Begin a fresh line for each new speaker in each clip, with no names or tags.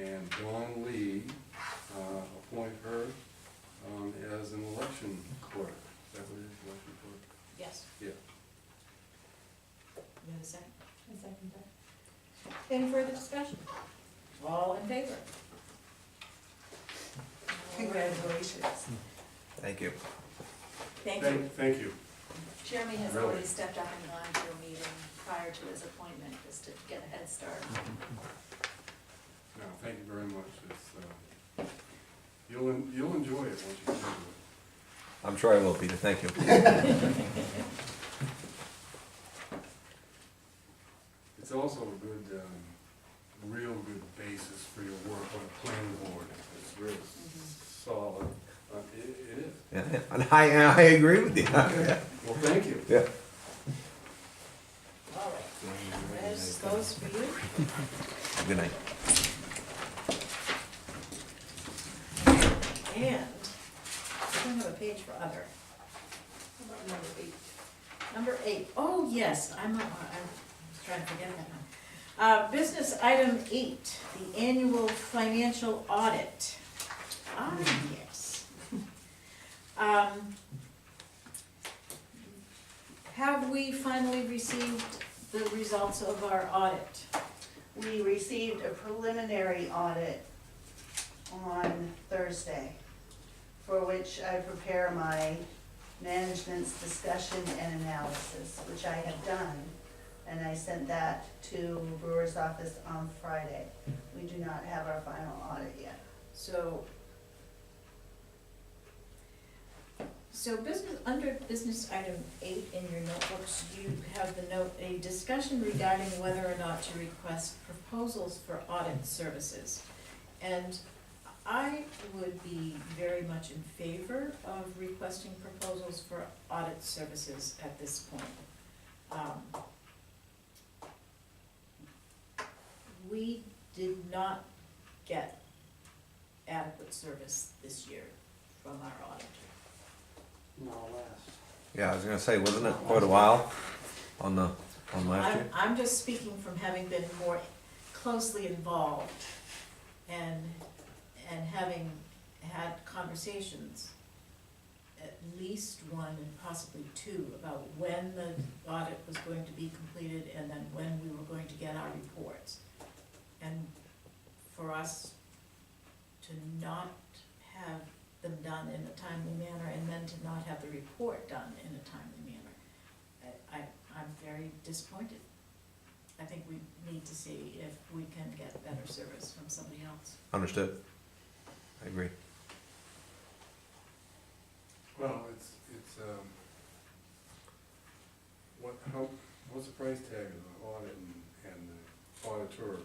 and Dawn Lee, uh, appoint her um, as an election clerk. Is that what it is, election clerk?
Yes.
Yeah.
You have a second?
I second that. Any further discussion? All in favor?
Congratulations.
Thank you.
Thank you.
Thank you.
Jeremy has
Really?
already stepped up and gone to a meeting prior to his appointment, just to get a head start.
No, thank you very much. It's, uh, you'll, en- you'll enjoy it once you get into it.
I'm sure I will, Peter, thank you.
It's also a good, um, real good basis for your work on a planning board. It's real
Mm-hmm.
solid. Uh, It, it is.
Yeah, yeah. And I, and I agree with you.
Well, thank you.
Yeah.
All right. There's those for you.
Good night.
And I don't have a page for other. How about number eight? Number eight. Oh yes, I'm, not- I'm trying to forget that one. Uh, business item eight, the annual financial audit. Ah, yes. Um, Have we finally received the results of our audit?
We received a preliminary audit on Thursday, for which I prepare my management's discussion and analysis, which I have done. And I sent that to Brewer's office on Friday. We do not have our final audit yet.
So. So business, under business item eight in your notebooks, you have the note, a discussion regarding whether or not to request proposals for audit services. And I would be very much in favor of requesting proposals for audit services at this point. Um, We did not get adequate service this year from our auditor.
No less.
Yeah, I was gonna say, wasn't it quite a while on the, on last
I'm,
year?
I'm just speaking from having been more closely involved and, and having had conversations, at least one and possibly two, about when the audit was going to be completed and then when we were going to get our reports. And for us to not have them done in a timely manner and then to not have the report done in a timely manner. I, I- I'm very disappointed. I think we need to see if we can get better service from somebody else.
Understood. I agree.
Well, it's, it's, um, what, how, what's the price tag of the audit and, and the auditor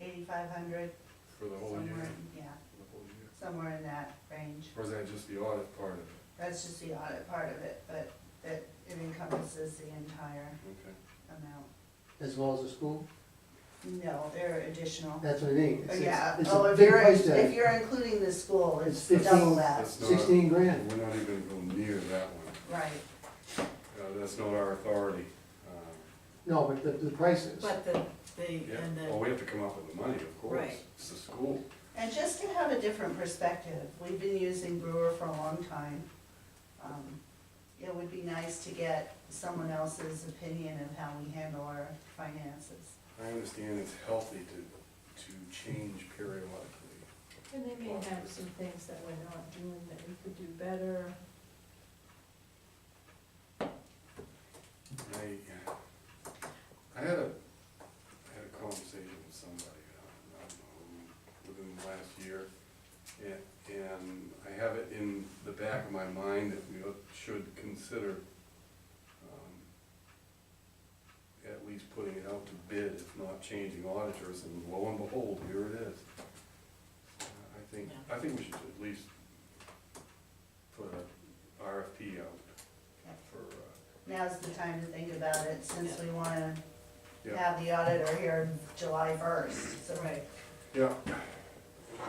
Eighty-five hundred,
for the whole year?
somewhere, yeah,
For the whole year?
somewhere in that range.
Or is that just the audit part of it?
That's just the audit part of it, but that it encompasses the entire
Okay.
amount.
As well as the school?
No, there are additional.
That's what I mean. It's- it's-
Yeah,
It's
oh,
a
if
big
you're,
price
if
tag.
you're including the school, it's
It's
double
15.
that,
That's not-
Sixteen grand.
We're not even gonna go near that one.
right.
Uh, that's not our authority. Uh,
No, but the, the prices.
But the, the,
Yeah, Oh.
and
well,
the,
we have to come up with the money, of course.
Right.
It's the school.
And just to have a different perspective, we've been using Brewer for a long time. Um, It would be nice to get someone else's opinion of how we handle our finances.
I understand it's healthy to, to change periodically.
And they may have some things that we're not doing that we could do better.
I, uh, I had a, I had a conversation with somebody, I don't know, within the last year. And, and I have it in the back of my mind that we should consider, um, at least putting it out to bid, if not changing auditors, and lo and behold, here it is. Uh, I think, I think we should at least put a RFP out for, uh,
Now's the time to think about it, since we wanna
Yeah.
have the auditor here July first, so.
right,
Yeah. Well,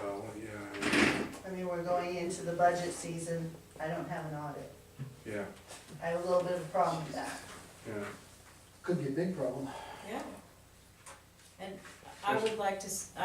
Oh, yeah,
I mean, we're going into the budget season, I don't have an audit,
yeah,
I have a little bit of a problem with that.
yeah.
Could be a big problem.
yeah. And I would like to, s-